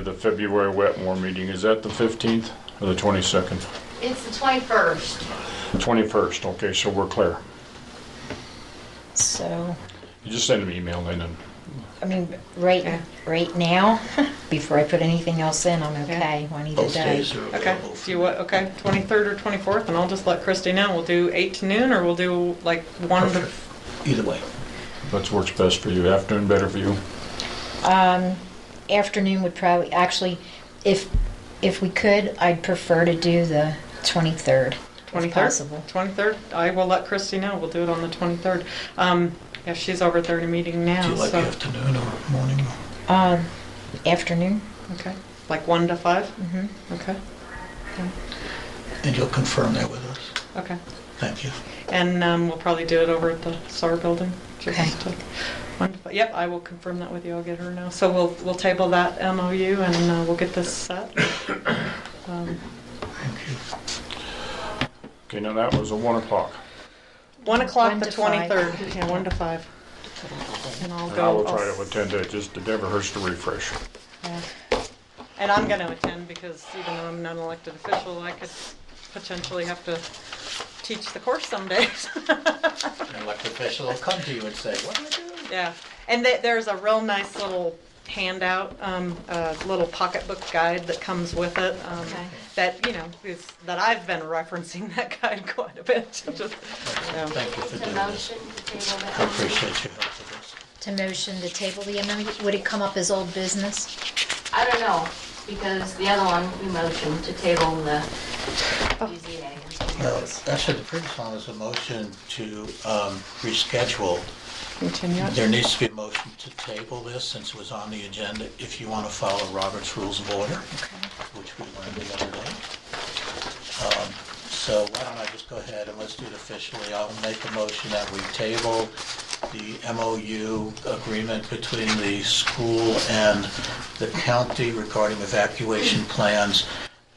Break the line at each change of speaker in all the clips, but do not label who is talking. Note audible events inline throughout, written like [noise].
The February Wetmore meeting, is that the 15th or the 22nd?
It's the 21st.
The 21st, okay, so we're clear.
So,
You just send an email then and
I mean, right, right now, [laughs] before I put anything else in, I'm okay on either
Both
day.
days are
Okay,
available.
do you what, okay, 23rd or 24th, and I'll just let Christy know, we'll do 8 to noon, or we'll do like 1 to...
Either way.
that's works best for you, afternoon better for you.
Um, afternoon would probably, actually, if, if we could, I'd prefer to do the 23rd, if
23rd?
possible.
23rd, I will let Christy know, we'll do it on the 23rd. Um, yeah, she's over there in a meeting
Do
now,
you like
Oh, so,
afternoon or morning?
Um, afternoon,
okay, like 1 to 5?
Mhm.
Okay,
And you'll confirm that with us.
okay.
Thank you.
And um, we'll probably do it over at the SAR building. just
Okay.
to- wonderful. Yep, I will confirm that with you. I'll get her now. So we'll, we'll table that MOU and uh, we'll get this set. [coughs] Um,
Thank you.
Okay, now that was a 1 o'clock.
One o'clock,
One
the
to five.
twenty-third. [laughs] Yeah, one to five. And I'll
And
go.
I will try
I'll-
to attend it, just it never hurts to refresh.
yeah. And I'm gonna attend because even though I'm not an elected official, I could potentially have to teach the course some days. [laughs]
An elected official will come to you and say, what do I do?
Yeah, and th- there's a real nice little handout, um, a little pocketbook guide that comes with it. Um,
Okay.
That you know is that I've been referencing [laughs] that guide quite a bit. [laughs] Just, yeah.
Thank you
It's
for
a
doing this.
motion to table that.
I appreciate your help with this.
to motion to table the amendment, would it come up as old business?
I don't know, because the other one, we motioned to table the UZA.
No, actually, the previous one was a motion to um, reschedule.
Continue. it.
There needs to be a motion to table this since it was on the agenda, if you want to follow Robert's Rules of Order, which we learned the other day. Um, So why don't I just go ahead and let's do it officially. I'll make a motion that we table the MOU agreement between the school and the county regarding evacuation plans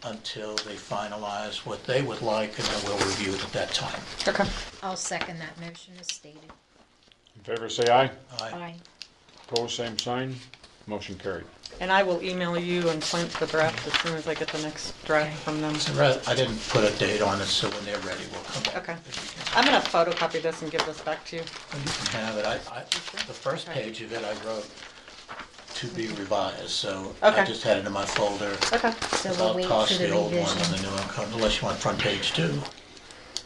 until they finalize what they would like, and then we'll review it at that time.
Okay.
I'll second that motion as stated.
In favor, say aye.
Aye.
Aye.
Opposed, same sign. Motion carried.
And I will email you and Clint the draft as soon as I get the next draft from them.
So, Ra- I didn't put a date on it, so when they're ready, we'll come back.
Okay. I'm gonna photocopy this and give this back to you.
Well, You can have it. I, I, the first page of it I wrote to be revised, so I
Okay.
just had it in my folder.
Okay.
So
I'll
we'll wait
toss
for the
old one when
revision.
the new one comes, unless you want front page too.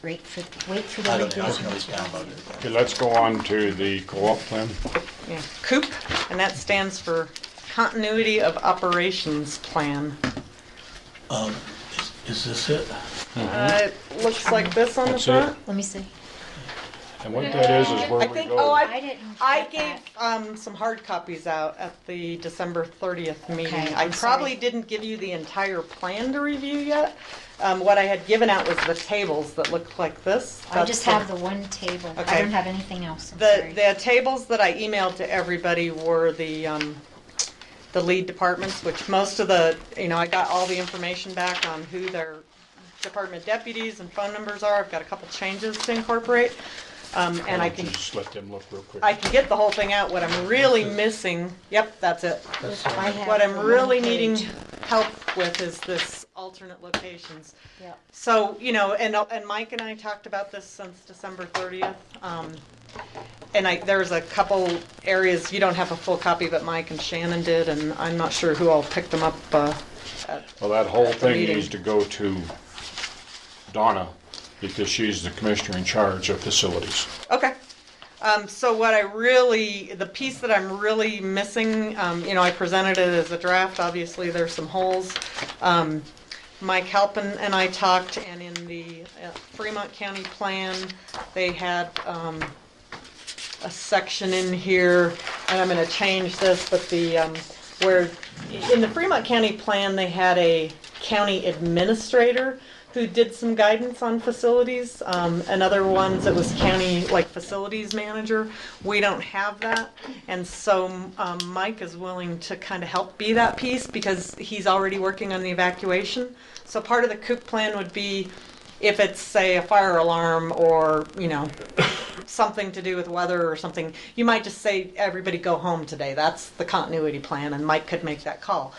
Wait for, wait for the
I don't know, I
revision.
can always download it.
Okay, let's go on to the co-op plan.
Yeah. COOP, and that stands for Continuity of Operations Plan.
Um, is, is this it?
Uh, it looks like this on the
That's it.
front.
Let me see.
And what that is, is
I
where we
think, oh,
go.
I,
I didn't
I
get
gave, um, some hard copies out at the December thirtieth meeting.
Okay,
I
I'm sorry.
probably didn't give you the entire plan to review yet. Um, what I had given out was the tables that looked like this.
I just
That's the-
have the one table.
Okay.
I don't have anything else. I'm
The,
sorry.
the tables that I emailed to everybody were the, um, the lead departments, which most of the, you know, I got all the information back on who their department deputies and phone numbers are. I've got a couple changes to incorporate. Um, and I can,
Just let them look real quick.
I can get the whole thing out. What I'm really missing, yep, that's it.
That's
I
it.
have
What I'm
the one
really needing
page.
help with is this alternate locations.
Yep.
So, you know, and, and Mike and I talked about this since December 30th. um, And I, there's a couple areas, you don't have a full copy, but Mike and Shannon did, and I'm not sure who all picked them up. uh, at-
Well, that whole
At the
thing
meeting.
needs to go to Donna, because she's the commissioner in charge of facilities.
Okay. Um, So what I really, the piece that I'm really missing, um, you know, I presented it as a draft, obviously there's some holes. Um, Mike Halpin and I talked, and in the uh, Fremont County Plan, they had um, a section in here, and I'm gonna change this, but the, um, where, in the Fremont County Plan, they had a county administrator who did some guidance on facilities, um, and other ones, it was county, like, facilities manager. We don't have that, and so, um, Mike is willing to kind of help be that piece, because he's already working on the evacuation. So part of the COOP plan would be, if it's, say, a fire alarm, or, you know, something to do with weather or something, you might just say, everybody go home today. That's the continuity plan, and Mike could make that call.